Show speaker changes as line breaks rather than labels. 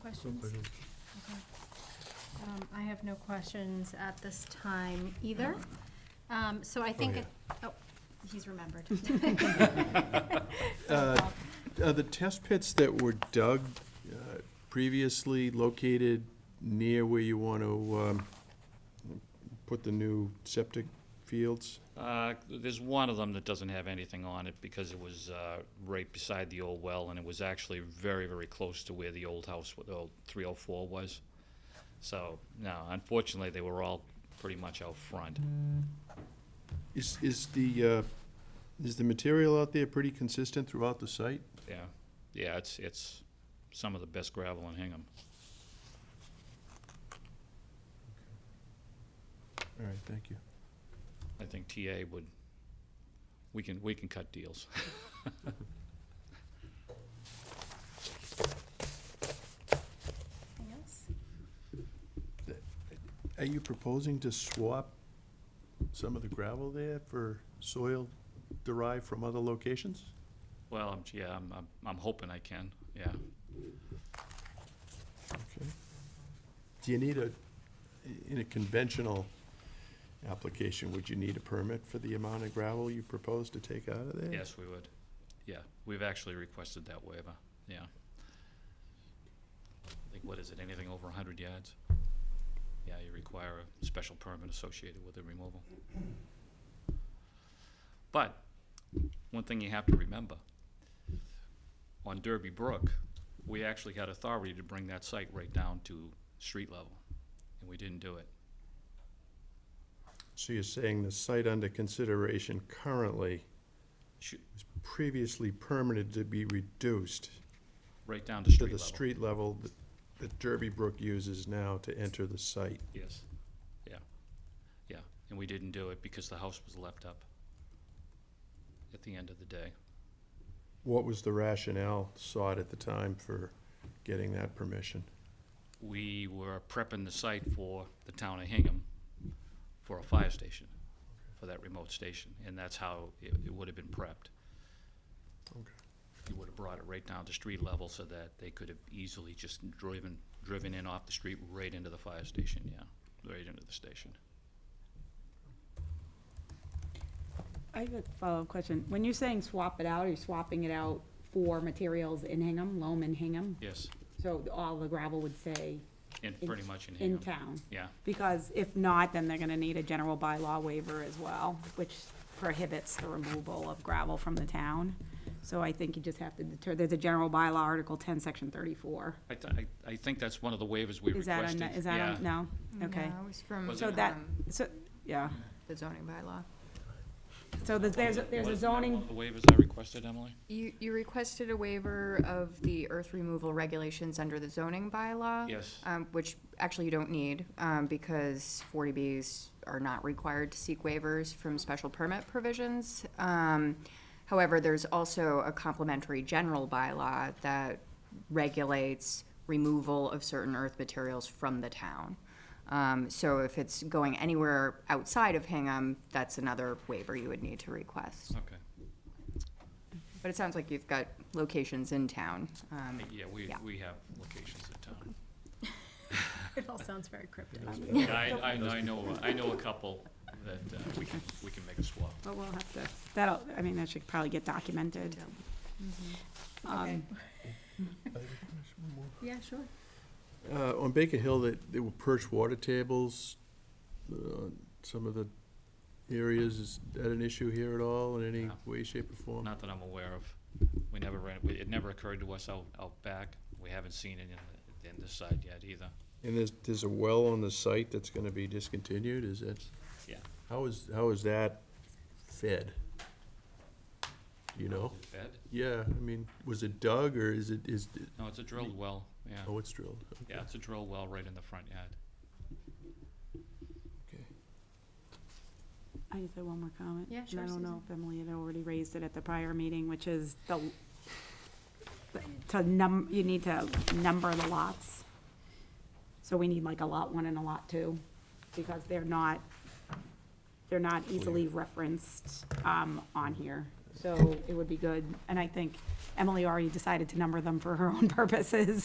questions? Okay. Um, I have no questions at this time either. Um, So I think,
yeah.
it- oh, he's remembered.
Uh, Are the test pits that were dug uh, previously located near where you want to um, put the new septic fields?
Uh, There's one of them that doesn't have anything on it because it was uh, right beside the old well, and it was actually very, very close to where the old house, the old 304 was. So, no, unfortunately, they were all pretty much out front.
Is, is the, uh, is the material out there pretty consistent throughout the site?
Yeah, yeah, it's, it's some of the best gravel in Hingham.
All right, thank you.
I think TA would, we can, we can cut deals.
Anything else?
Are you proposing to swap some of the gravel there for soil derived from other locations?
Well, I'm- yeah, I'm, I'm- I'm hoping I can, yeah.
Okay. Do you need a, in a conventional application, would you need a permit for the amount of gravel you propose to take out of there?
Yes, we would. Yeah, we've actually requested that waiver, yeah. I think, what is it, anything over hundred yards? Yeah, you require a special permit associated with the removal. But, one thing you have to remember, on Derby Brook, we actually had authority to bring that site right down to street level, and we didn't do it.
So you're saying the site under consideration currently
Shoot,
was previously permitted to be reduced
right down to street
to
level.
the street level that- that Derby Brook uses now to enter the site?
Yes, yeah, yeah, and we didn't do it because the house was left up at the end of the day.
What was the rationale sought at the time for getting that permission?
We were prepping the site for the town of Hingham for a fire station, for that remote station, and that's how it, it would have been prepped.
Okay.
You would have brought it right down to street level so that they could have easily just driven, driven in off the street right into the fire station, yeah, right into the station.
I have a follow-up question. When you're saying swap it out, are you swapping it out for materials in Hingham, loam in Hingham?
Yes,
So all the gravel would say
and
In-
pretty much in
in
Hingham,
town?
yeah.
Because if not, then they're gonna need a general bylaw waiver as well, which prohibits the removal of gravel from the town. So I think you just have to deter, there's a general bylaw, Article ten, Section thirty-four.
I, th- I, I think that's one of the waivers we
Is that on,
requested,
is that
yeah.
on, no? Okay.
No, it was from,
Was
So that,
um,
so, yeah.
the zoning bylaw.
So there's, there's a- there's a
Wasn't that one
zoning
of The waivers I requested, Emily?
You, you requested a waiver of the earth removal regulations under the zoning bylaw.
Yes.
Um, which actually you don't need, um, because forty Bs are not required to seek waivers from special permit provisions. Um, however, there's also a complementary general bylaw that regulates removal of certain earth materials from the town. Um, so if it's going anywhere outside of Hingham, that's another waiver you would need to request.
Okay.
But it sounds like you've got locations in town. um,
Yeah, we,
Yeah.
we have locations in town.
It all sounds very cryptic.
Yeah, I, I, I know, I know a couple that uh, we can, we can make a swap.
But we'll have to, that'll, I mean, that should probably get documented.
Okay.
Um,
Yeah, sure.
Uh, on Baker Hill, they, they will perch water tables, uh, some of the areas, is that an issue here at all in any
No.
way, shape, or form?
Not that I'm aware of. We never ran, we- it never occurred to us out, out back. We haven't seen it in, in this side yet either.
And there's, there's a well on the site that's gonna be discontinued, is that,
Yeah.
how is, how is that fed? Do You know?
Fed?
Yeah, I mean, was it dug, or is it, is, it-
No, it's a drilled well, yeah.
oh, it's drilled? okay.
Yeah, it's a drilled well right in the front yard.
Okay.
I just had one more comment.
Yeah,
and
sure,
I don't know if Emily had already raised it at the prior meeting, which is the, the- to num, you need to number the lots. So we need like a lot one and a lot two, because they're not, they're not easily referenced, um, on here. So it would be good, and I think Emily already decided to number them for her own purposes,